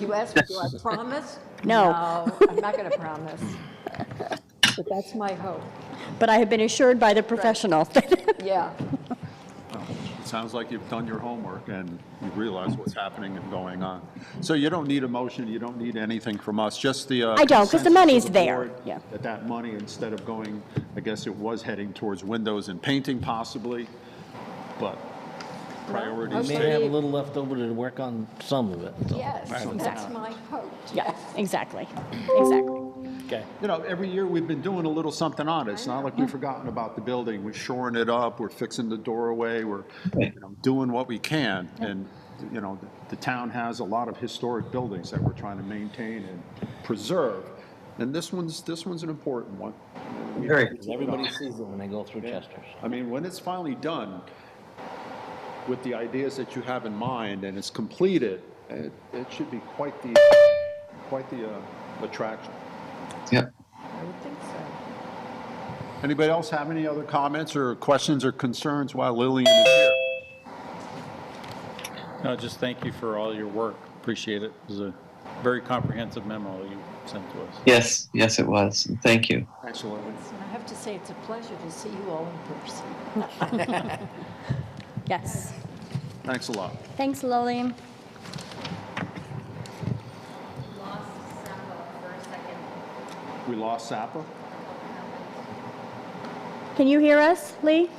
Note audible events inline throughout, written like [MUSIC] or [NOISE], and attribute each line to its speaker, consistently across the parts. Speaker 1: You asked me, do I promise?
Speaker 2: No.
Speaker 1: No, I'm not going to promise. But that's my hope,
Speaker 2: But I have been assured by the professional. [LAUGHS]
Speaker 1: yeah.
Speaker 3: It sounds like you've done your homework and you realize what's happening and going on. So you don't need a motion, you don't need anything from us, just the. uh,
Speaker 2: I don't, 'cause the
Speaker 3: consensus of
Speaker 2: money's
Speaker 3: the
Speaker 2: there,
Speaker 3: board
Speaker 2: yeah.
Speaker 3: That that money, instead of going, I guess it was heading towards windows and painting possibly, but priorities.
Speaker 1: okay.
Speaker 3: take-
Speaker 4: May have a little left over to work on some of it. so.
Speaker 1: Yes, that's my hope,
Speaker 2: Yeah,
Speaker 1: yes.
Speaker 2: exactly, exactly.
Speaker 4: Okay.
Speaker 3: You know, every year we've been doing a little something on it. It's not like we've forgotten about the building. We're shoring it up, we're fixing the doorway, we're, you know, doing what we can. And, you know, the town has a lot of historic buildings that we're trying to maintain and preserve. And this one's, this one's an important one.
Speaker 5: Very.
Speaker 4: Everybody sees them when they go through Chester's.
Speaker 3: I mean, when it's finally done with the ideas that you have in mind and it's completed, it, it should be quite the, quite the uh, attraction.
Speaker 5: Yep.
Speaker 1: I would think so.
Speaker 3: Anybody else have any other comments or questions or concerns while Lillian is here?
Speaker 6: No, just thank you for all your work. Appreciate it. It was a very comprehensive memo you sent to us.
Speaker 5: Yes, yes, it was. Thank you.
Speaker 3: Absolutely.
Speaker 1: And I have to say, it's a pleasure to see you all in person.
Speaker 2: Yes.
Speaker 3: Thanks a lot.
Speaker 2: Thanks, Lillian.
Speaker 7: lost Sapa for a second.
Speaker 3: We lost Zappa.
Speaker 2: Can you hear us, Lee?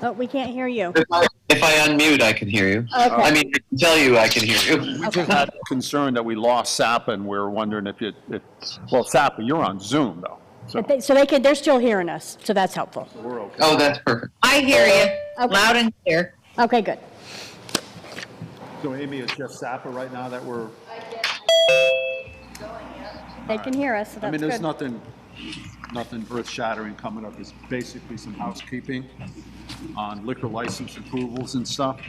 Speaker 2: Oh, we can't hear you.
Speaker 5: If I, if I unmute, I can hear you. I mean, I can tell you I can hear you.
Speaker 3: Concerned that we lost Zappa and we were wondering if you, if, well, Zappa, you're on Zoom though. So
Speaker 2: But they- So they can, they're still hearing us, so that's helpful.
Speaker 3: we're okay.
Speaker 5: Oh, that's perfect.
Speaker 8: I hear you, loud and clear.
Speaker 2: Okay, good.
Speaker 3: So Amy, it's just Zappa right now that we're,
Speaker 2: They can hear us, so
Speaker 3: I
Speaker 2: that's
Speaker 3: mean, there's
Speaker 2: good.
Speaker 3: nothing, nothing earth shattering coming up. It's basically some housekeeping on liquor license approvals and stuff.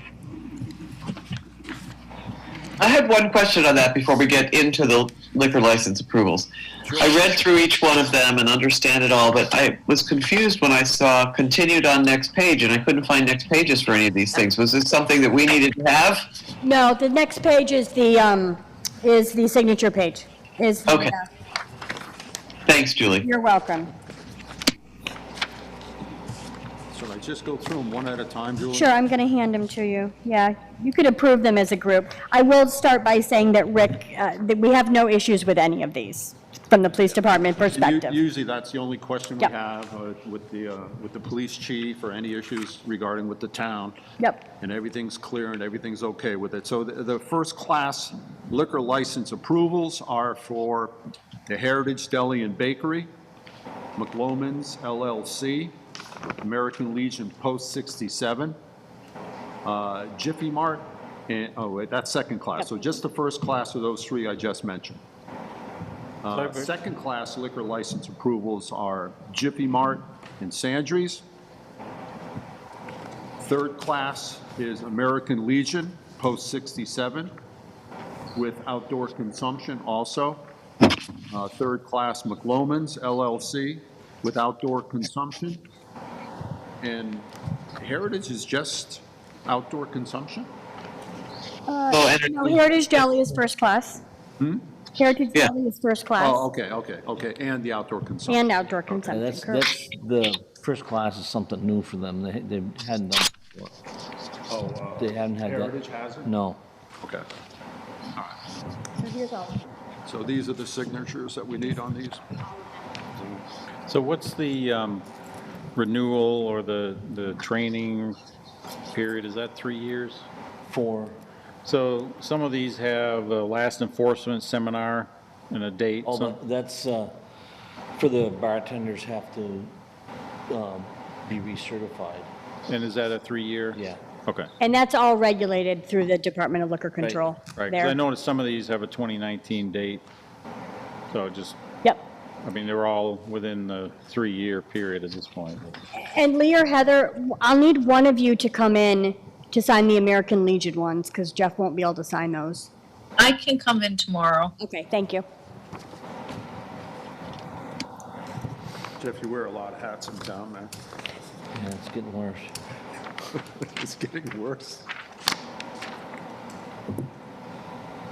Speaker 5: I had one question on that before we get into the liquor license approvals. I read through each one of them and understand it all, but I was confused when I saw continued on next page and I couldn't find next pages for any of these things. Was this something that we needed to have?
Speaker 2: No, the next page is the, um, is the signature page. Is, the,
Speaker 5: Okay.
Speaker 2: uh,
Speaker 5: Thanks, Julie.
Speaker 2: you're welcome.
Speaker 3: So I just go through them one at a time, Julie?
Speaker 2: Sure, I'm going to hand them to you. Yeah, you could approve them as a group. I will start by saying that Rick, uh, that we have no issues with any of these from the police department
Speaker 3: And u-
Speaker 2: perspective.
Speaker 3: Usually, that's the only question we
Speaker 2: Yep.
Speaker 3: have uh, with the, uh, with the police chief or any issues regarding with the town.
Speaker 2: Yep.
Speaker 3: And everything's clear and everything's okay with it. So the, the first-class liquor license approvals are for the Heritage Deli and Bakery, McLoman's LLC, American Legion Post 67, uh, Jiffy Mart, and, oh, wait, that's second class. So just the first class of those three I just mentioned. Uh, Second-class liquor license approvals are Jiffy Mart and Sandries. Third class is American Legion, post 67, with outdoor consumption also. Uh, Third class McLoman's LLC with outdoor consumption. And Heritage is just outdoor consumption?
Speaker 5: Oh, and-
Speaker 2: No, Heritage Deli is first class. Heritage
Speaker 5: Yeah.
Speaker 2: Deli is first
Speaker 3: Oh,
Speaker 2: class
Speaker 3: okay, okay, okay, and the outdoor consumption.
Speaker 2: and outdoor
Speaker 4: And
Speaker 2: consumption.
Speaker 4: that's,
Speaker 2: correct.
Speaker 4: that's, the first class is something new for them. They, they hadn't done, it before.
Speaker 3: Oh, uh,
Speaker 4: they haven't had that.
Speaker 3: Heritage has it?
Speaker 4: No.
Speaker 3: Okay.
Speaker 2: So here's all.
Speaker 3: So these are the signatures that we need on these?
Speaker 6: So what's the um, renewal or the, the training period? Is that three years?
Speaker 4: For,
Speaker 6: So some of these have a last enforcement seminar and a date.
Speaker 4: oh,
Speaker 6: Some-
Speaker 4: but that's, uh, for the bartenders have to, um, be recertified.
Speaker 6: And is that a three-year?
Speaker 4: Yeah.
Speaker 6: Okay.
Speaker 2: And that's all regulated through the Department of Liquor Control
Speaker 6: Right, 'cause I
Speaker 2: there.
Speaker 6: noticed some of these have a 2019 date. So just,
Speaker 2: Yep.
Speaker 6: I mean, they're all within the three-year period at this point.
Speaker 2: And Lee or Heather, I'll need one of you to come in to sign the American Legion ones because Jeff won't be able to sign those.
Speaker 8: I can come in tomorrow.
Speaker 2: Okay, thank you.
Speaker 3: Jeff, you wear a lot of hats in town, man.
Speaker 4: Yeah, it's getting worse.
Speaker 3: It's getting worse.